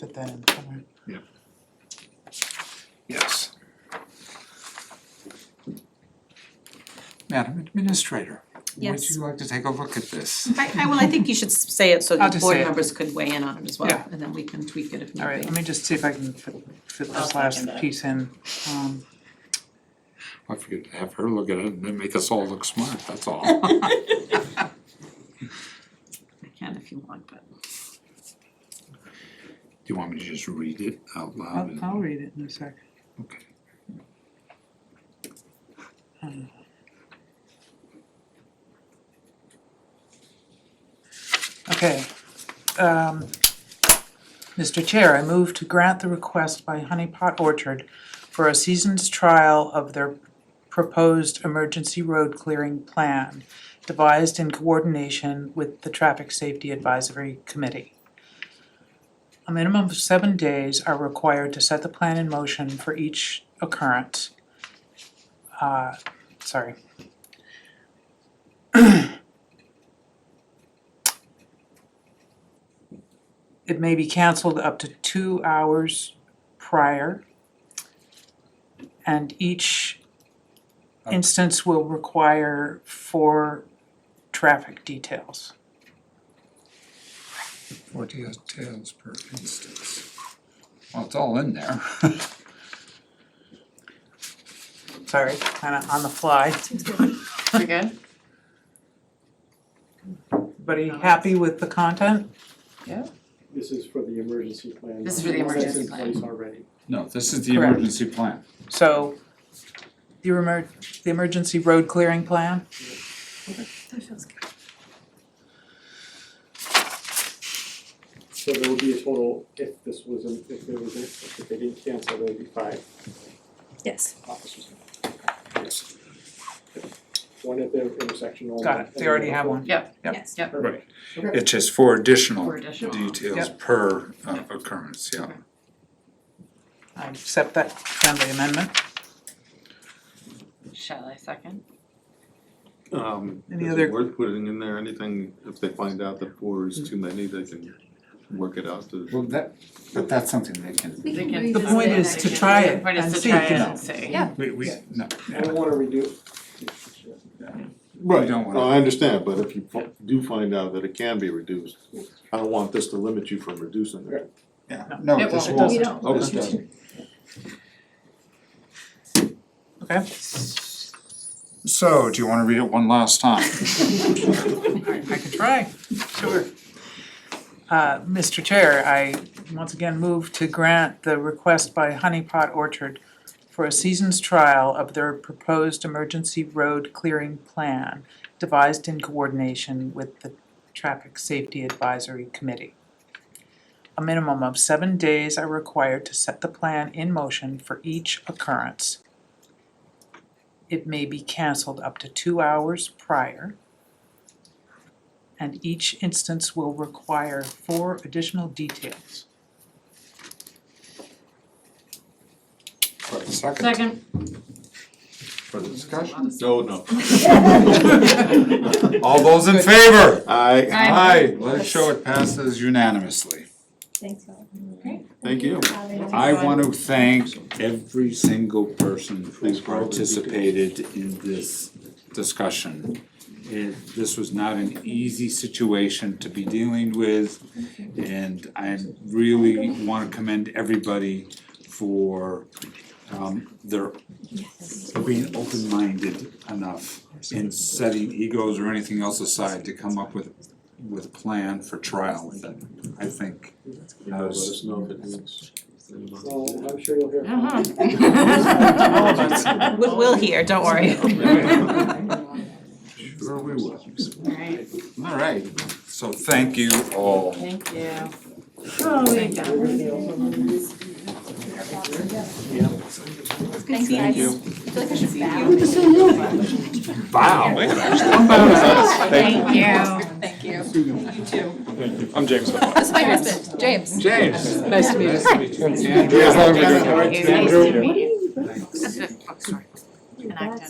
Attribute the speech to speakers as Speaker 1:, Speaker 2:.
Speaker 1: that in somewhere.
Speaker 2: Yes.
Speaker 3: Madam Administrator, would
Speaker 4: Yes.
Speaker 3: you like to take a look at this?
Speaker 4: I I well, I think you should s- say it so
Speaker 1: I'll
Speaker 4: that
Speaker 1: just
Speaker 4: board
Speaker 1: say it.
Speaker 4: members could weigh in on it as well,
Speaker 1: Yeah.
Speaker 4: and then we can tweak it if need be.
Speaker 1: Alright, let me just see if I can fit fit
Speaker 5: I'll
Speaker 1: this
Speaker 5: second
Speaker 1: last
Speaker 5: that.
Speaker 1: piece in, um,
Speaker 3: I forget, have her look at it and then make us all look smart, that's all.
Speaker 4: I can if you want, but
Speaker 3: Do you want me to just read it out loud?
Speaker 1: I'll
Speaker 3: and-
Speaker 1: I'll read it in a sec.
Speaker 3: Okay.
Speaker 1: Okay. Um, Mr. Chair, I move to grant the request by Honey Pot Orchard for a season's trial of their proposed emergency road clearing plan devised in coordination with the Traffic Safety Advisory Committee. A minimum of seven days are required to set the plan in motion for each occurrence. Uh, sorry. It may be canceled up to two hours prior. And each instance will require four traffic details.
Speaker 3: Four details per instance. Well, it's all in there.
Speaker 1: Sorry, kinda on the fly.
Speaker 5: Okay.
Speaker 1: Everybody happy with the content?
Speaker 6: This is for the emergency plan.
Speaker 5: This is for the
Speaker 6: not one that's
Speaker 5: emergency plan.
Speaker 6: in place already.
Speaker 3: No, this is the
Speaker 1: Correct.
Speaker 3: emergency plan.
Speaker 1: So, the emer- the emergency road clearing plan?
Speaker 4: that feels good.
Speaker 6: So there would be a total, if this was, an- if there was, an- if they didn't cancel, there would be five
Speaker 4: Yes.
Speaker 6: officers. One at the intersection only.
Speaker 1: Got it, they already have one. Yep.
Speaker 4: Yes.
Speaker 5: Yep.
Speaker 6: Perfect. Okay.
Speaker 3: It's just four additional
Speaker 5: For additional.
Speaker 3: details per uh, occurrence, yeah.
Speaker 1: I accept that friendly amendment.
Speaker 5: Shall I second?
Speaker 7: Um,
Speaker 1: Any
Speaker 7: is
Speaker 1: other-
Speaker 7: it worth putting in there anything, if they find out that four is too many, they can work it out to.
Speaker 3: Well, that, but that's something they can,
Speaker 5: They
Speaker 4: can
Speaker 5: can-
Speaker 1: The point is to try it
Speaker 5: The point
Speaker 1: and
Speaker 5: is to
Speaker 1: see,
Speaker 5: try it
Speaker 1: you
Speaker 5: and see.
Speaker 1: Yeah.
Speaker 3: we, we, no,
Speaker 6: I don't wanna redo.
Speaker 3: You don't wanna-
Speaker 7: No, I understand, but if you fi- do find out that it can be reduced, I don't want this to limit you from reducing it.
Speaker 3: yeah, no,
Speaker 5: It
Speaker 3: this
Speaker 5: won't.
Speaker 3: won't,
Speaker 5: We
Speaker 3: this
Speaker 5: don't.
Speaker 3: doesn't.
Speaker 7: Okay.
Speaker 1: Okay.
Speaker 3: So, do you wanna read it one last time?
Speaker 1: I can try. Sure. Uh, Mr. Chair, I once again move to grant the request by Honey Pot Orchard for a season's trial of their proposed emergency road clearing plan devised in coordination with the Traffic Safety Advisory Committee. A minimum of seven days are required to set the plan in motion for each occurrence. It may be canceled up to two hours prior and each instance will require four additional details.
Speaker 3: For a second,
Speaker 5: Second.
Speaker 3: for the discussion.
Speaker 7: No, no.
Speaker 3: All those in favor?
Speaker 7: I,
Speaker 5: Aye.
Speaker 3: Let's show it passes unanimously.
Speaker 8: Thanks, Rob.
Speaker 7: thank you.
Speaker 3: I want to thank every single person who
Speaker 7: Thanks for all the details.
Speaker 3: participated in this discussion. It, this was not an easy situation to be dealing with, and I really wanna commend everybody for um their being open-minded enough and setting egos or anything else aside to come up with with a plan for trial with it, I think.
Speaker 7: You know, let us know if it needs.
Speaker 6: Well, I'm sure you'll hear. from
Speaker 5: Uh-huh.
Speaker 4: We- We'll hear, don't worry.
Speaker 3: Sure we will.
Speaker 5: Alright,
Speaker 3: All right, so thank you all.
Speaker 5: thank you. Oh, we got it.
Speaker 8: Thanks, guys. I feel like I should bow.
Speaker 3: Wow.
Speaker 5: Thank you.
Speaker 4: Thank you.
Speaker 7: I'm James.
Speaker 4: This is my husband, James.
Speaker 3: James.
Speaker 1: Nice to meet
Speaker 3: Nice to meet you.
Speaker 7: Andrew.
Speaker 5: Nice to meet you.
Speaker 8: That's-